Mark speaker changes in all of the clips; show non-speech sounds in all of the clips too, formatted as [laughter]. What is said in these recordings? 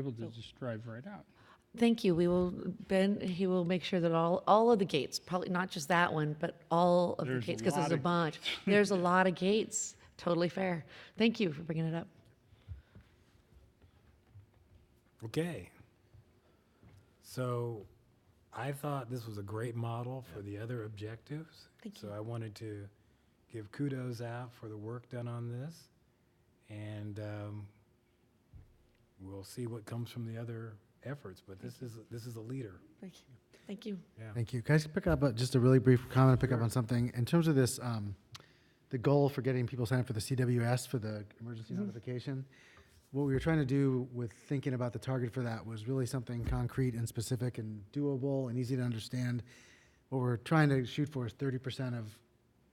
Speaker 1: able to just drive right out.
Speaker 2: Thank you. We will, Ben, he will make sure that all, all of the gates, probably not just that one, but all of the
Speaker 1: There's a
Speaker 2: gates, because there's
Speaker 1: lot
Speaker 2: a
Speaker 1: of-
Speaker 2: bunch. There's a lot of gates. Totally fair. Thank you for bringing it up.
Speaker 3: Okay. So I thought this was a great model for the other objectives.
Speaker 2: Thank
Speaker 3: So I wanted to give kudos out for the work done on this. And um, we'll see what comes from the other efforts, but this is, this is a leader.
Speaker 2: Thank you. Thank you.
Speaker 3: Yeah.
Speaker 4: Thank you. Can I just pick up, uh, just a really brief comment, pick up on something? In terms of this, um, the goal for getting people signed up for the CWS, for the emergency notification, what we were trying to do with thinking about the target for that was really something concrete and specific and doable and easy to understand. What we're trying to shoot for is thirty percent of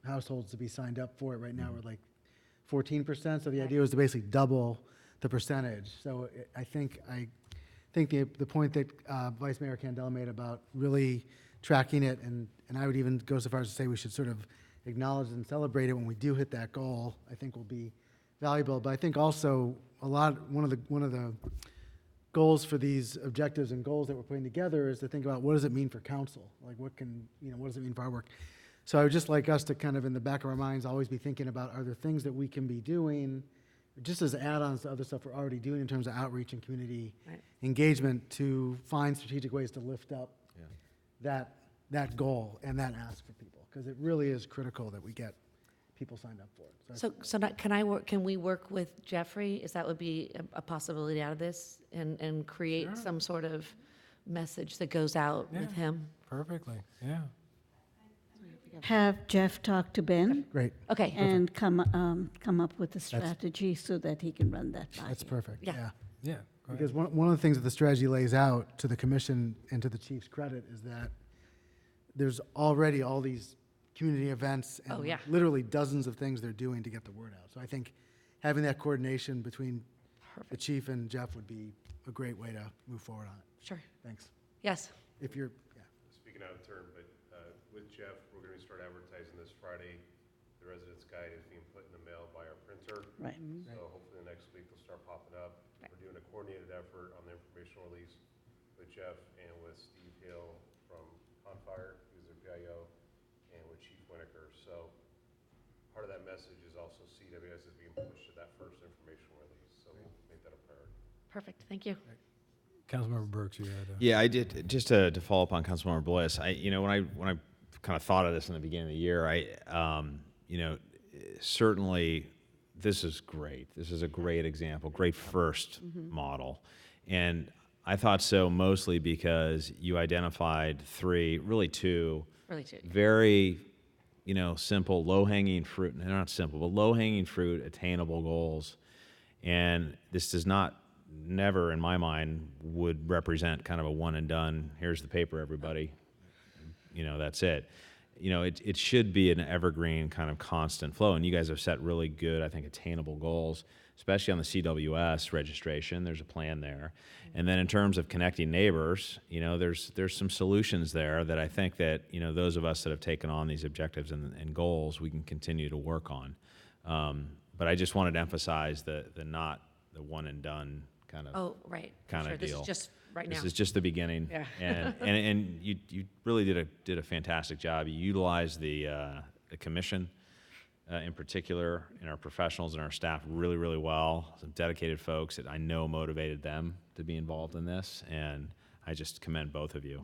Speaker 4: households to be signed up for it. Right now, we're like fourteen percent, so the idea was to basically double the percentage. So it- I think, I think the, the point that uh, Vice Mayor Candela made about really tracking it, and, and I would even go so far as to say we should sort of acknowledge and celebrate it when we do hit that goal, I think will be valuable. But I think also, a lot, one of the, one of the goals for these objectives and goals that we're putting together is to think about what does it mean for council? Like what can, you know, what does it mean for our work? So I would just like us to kind of in the back of our minds, always be thinking about, are there things that we can be doing? Just as add-ons to other stuff we're already doing in terms of outreach and community
Speaker 2: Right.
Speaker 4: engagement to find strategic ways to lift up that, that goal and that ask for people. Because it really is critical that we get people signed up for it. So I
Speaker 2: So, so not, can I work, can we work with Jeffrey? Is that would be a- a possibility out of this? And, and create some sort of message that goes out with
Speaker 3: Yeah.
Speaker 2: him?
Speaker 3: Perfectly, yeah.
Speaker 5: have Jeff talk to Ben
Speaker 4: Great,
Speaker 2: Okay.
Speaker 5: and come, um, come up with a strategy so that he can run that by
Speaker 4: that's
Speaker 5: you.
Speaker 4: perfect,
Speaker 2: Yeah.
Speaker 4: yeah.
Speaker 3: Yeah. go ahead.
Speaker 4: Because one, one of the things that the strategy lays out to the commission and to the chief's credit is that there's already all these community events and
Speaker 2: Oh, yeah.
Speaker 4: literally dozens of things they're doing to get the word out. So I think having that coordination between the
Speaker 2: Perfect.
Speaker 4: chief and Jeff would be a great way to move forward on it.
Speaker 2: Sure.
Speaker 4: Thanks.
Speaker 2: Yes.
Speaker 4: If you're, yeah.
Speaker 6: Speaking out of turn, but uh, with Jeff, we're going to start advertising this Friday. The residence guide is being put in the mail by our printer,
Speaker 5: Right.
Speaker 6: so hopefully the next week they'll start popping up. We're doing a coordinated effort on the informational release with Jeff and with Steve Hill from Confire, who's their PIO, and with Chief Winiker. So part of that message is also CWS is being pushed to that first informational release, so we'll make that a priority.
Speaker 2: Perfect. Thank you.
Speaker 3: Councilmember Burks, you had a.
Speaker 7: Yeah, I did. Just to, to follow up on Councilmember Bliss, I you know when I when I kind of thought of this in the beginning of the year, I um, you know certainly this is great. This is a great example, great 1st model, and I thought so mostly because you identified three, really two,
Speaker 2: Really too.
Speaker 7: very you know simple, low hanging fruit. They're not simple, but low hanging fruit, attainable goals and this does not never in my mind would represent kind of a one and done here's the paper everybody you know that's it you know it, it should be an evergreen kind of constant flow and you guys have set really good i think attainable goals especially on the cws registration there's a plan there and then in terms of connecting neighbors you know there's there's some solutions there that i think that you know those of us that have taken on these objectives and, and goals we can continue to work on um, but I just wanted to emphasize the the not the one and done kind of
Speaker 2: Oh, right.
Speaker 7: kind
Speaker 2: Sure,
Speaker 7: of deal.
Speaker 2: This is just right now.
Speaker 7: This is just the beginning.
Speaker 2: Yeah. [laughs]
Speaker 7: And, and and you you really did a did a fantastic job. You utilized the uh, the commission uh, in particular and our professionals and our staff really really well. Some dedicated folks that I know motivated them to be involved in this, and I just commend both of you.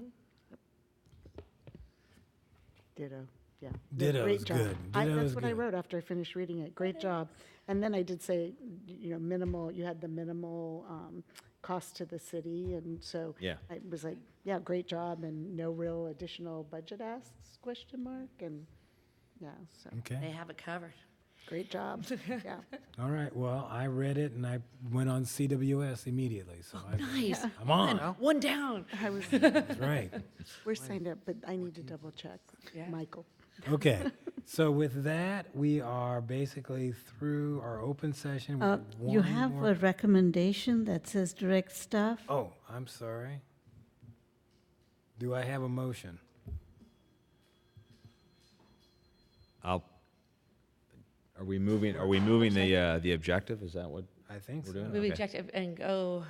Speaker 8: Ditto, yeah.
Speaker 3: Ditto
Speaker 8: Great
Speaker 3: is
Speaker 8: job.
Speaker 3: good.
Speaker 8: I-
Speaker 3: Ditto is
Speaker 8: That's what I
Speaker 3: good.
Speaker 8: wrote after I finished reading it. Great job. And then I did say, you know, minimal, you had the minimal um, cost to the city, and so
Speaker 7: Yeah.
Speaker 8: I was like, yeah, great job, and no real additional budget asks, question mark, and, yeah, so,
Speaker 2: They
Speaker 3: Okay,
Speaker 2: have it covered.
Speaker 3: [laughs]
Speaker 8: great job, yeah.
Speaker 3: all right, well, I read it and I went on CWS immediately, so I,
Speaker 2: Nice.
Speaker 3: I'm on,
Speaker 2: [laughs] One down.
Speaker 8: I was,
Speaker 3: that's right.
Speaker 8: we're signed up, but I need to double check,
Speaker 2: Yeah.
Speaker 8: Michael.
Speaker 3: Okay, so with that, we are basically through our open session. We
Speaker 5: Uh, You
Speaker 3: one
Speaker 5: have
Speaker 3: more-
Speaker 5: a recommendation that says direct staff?
Speaker 3: Oh, I'm sorry. Do I have a motion?
Speaker 7: I'll. Are we moving? Are we moving the uh, the objective? Is that what
Speaker 3: I think
Speaker 7: we're
Speaker 3: so.
Speaker 2: Move
Speaker 7: doing?
Speaker 2: the
Speaker 7: Okay.
Speaker 2: objective and go